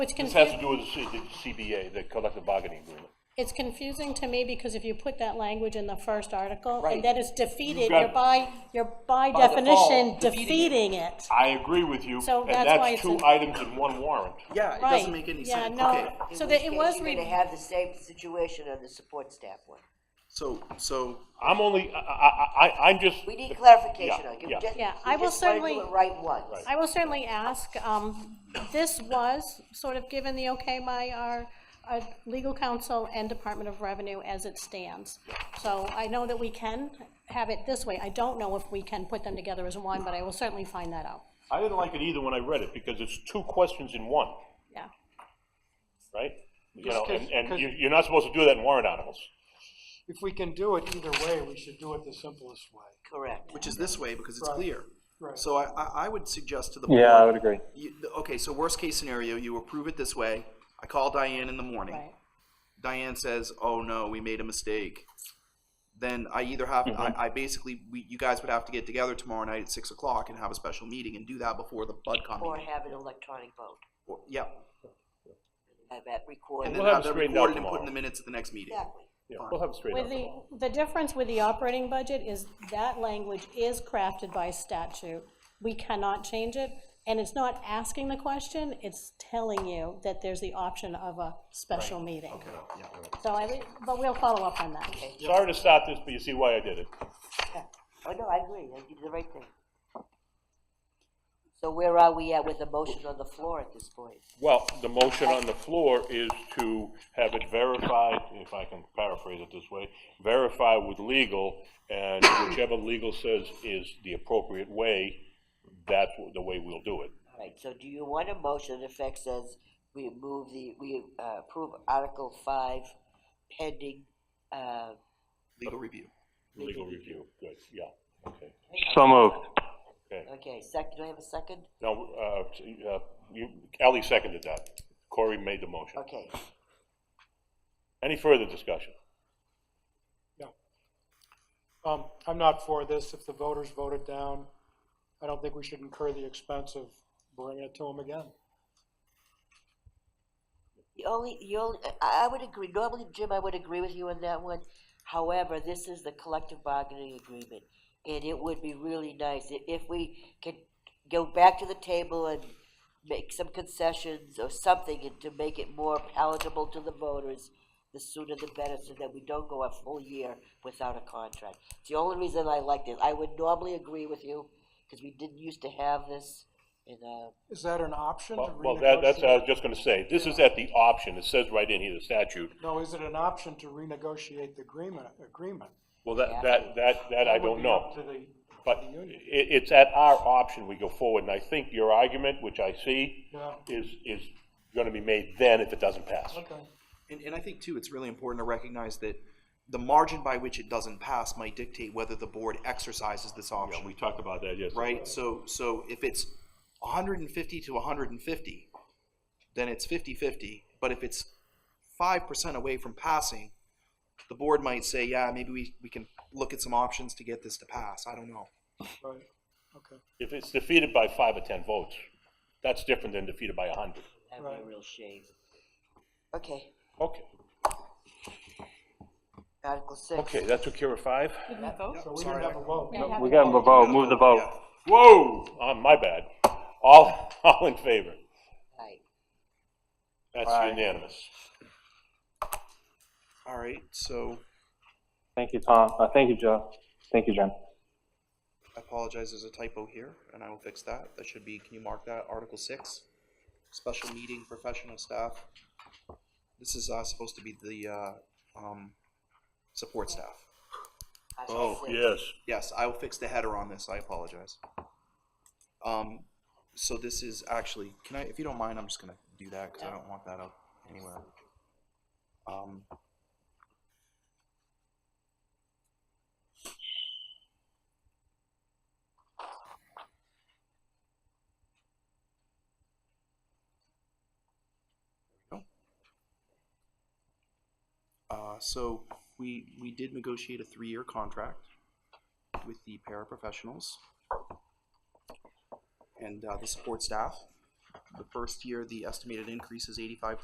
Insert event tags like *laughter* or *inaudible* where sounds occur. It's This has to confusing, do with the C- the CBA, the collective bargaining agreement. it's confusing to me because if you put that language in the first article, Right. and then it's defeated, got you're it. by, you're by By definition default, defeating defeating it. I agree with you, So and that's why that's it's two a- items in one warrant. Yeah, it Right. doesn't make any Yeah, sense. no. Okay, So that it was, We're re- gonna have the same situation on the support staff one. so, so, I'm only, I, I, I- I'm just. We need clarification Yeah, on it. We yeah. just- Yeah, I will We just certainly- wanna do it right once. I will certainly ask, um, this was sort of given the okay by our, our legal counsel and Department of Revenue as it stands. So I know that we can have it this way. I don't know if we can put them together as one, but I will certainly find that out, I didn't like it either when I read it, because it's two questions in one, yeah. right? You Just know, 'cause- and, and 'cause- you- you're not supposed to do that in warrant articles. If we can do it either way, we should do it the simplest way. Correct. which is this way, because it's Right. clear. Right. So I, I, I would suggest to the board. Yeah, I would agree. you- Okay, so worst case scenario, you approve it this way. I call Diane in the morning. Right. Diane says, "Oh no, we made a mistake." Then I either have I, I basically we, you guys would have to get together tomorrow night at six o'clock and have a special meeting and do that before the BudCon Or meeting. have an electronic vote, Or- Yep, have and that recorded. then We'll have have it that straightened out recorded and put in tomorrow. the minutes at the next meeting. Exactly. *laughs* Yeah, we'll have it straight With out. the, the difference with the operating budget is that language is crafted by statute. We cannot change it, and it's not asking the question, it's telling you that there's the option of a special meeting. So I, thi- but we'll follow up on that. Sorry to start this, but you see why I did it. Yeah. Oh, no, I agree. I did the right thing. So where are we at with the motion on the floor at this point? Well, the motion on the floor is to have it verified, if I can paraphrase it this way, verify with legal, and whichever legal says is the appropriate way, that's the way we'll do it. All right, so do you want a motion that effect says we move the, we uh, approve Article five pending, uh, Legal review. Legal review, good, yeah, okay. So moved. okay, second, do I have a second? Now, uh, uh, you, Ally seconded that. Corey made the motion. Okay, Any further discussion? Um, I'm not for this. If the voters vote it down, I don't think we should incur the expense of bringing it to them again. the only, the only, I, I would agree, normally, Jim, I would agree with you on that one. However, this is the collective bargaining agreement, and it would be really nice i- if we could go back to the table and make some concessions or something and to make it more palatable to the voters, the sooner the better, so that we don't go a full year without a contract. It's the only reason I like this. I would normally agree with you, because we didn't used to have this, and, uh, Is that an option to Well, well, that, that's, I was renegotiate? just gonna say, this is at the option, it says right in here, the statute. No, is it an option to renegotiate the agreement, agreement? Well, that, that, that, that I That don't would be up know. to the- But the union. it, it's at our option we go forward, and I think your argument, which I see, Yeah. is, is gonna be made then if it doesn't pass. Okay. And, and I think too, it's really important to recognize that the margin by which it doesn't pass might dictate whether the board exercises this Yeah, we option, talked about that, yes. right? So, so if it's hundred and fifty to hundred and fifty, then it's 50-50. But if it's five percent away from passing, the board might say, yeah, maybe we, we can look at some options to get this to pass. I don't know. Right, okay. If it's defeated by five or 10 votes, that's different than defeated by a 100. that'd be a Right. real shame. Okay, Okay, Article six. okay, that's what Kira five? So we didn't have a vote. We got the vote, move the vote. Whoa, uh, my bad. All, *laughs* all in favor? Right. That's Aye. unanimous. All right, so Thank you, Tom. Uh, thank you, Joe. Thank you, Jim. I apologize, there's a typo here, and I will fix that. That should be, can you mark that, Article six? Special meeting, professional staff. This is, uh, supposed to be the, uh, um, support staff. Article Oh, six. Yes, I will fix the header on this, I apologize. Um, so this is actually, can I, if you don't mind, I'm just gonna do that, cause I don't want that up anywhere. Um. There we go. Uh, so we, we did negotiate a three-year contract with the paraprofessionals and uh, the support staff. the first year, the estimated increase is eighty-five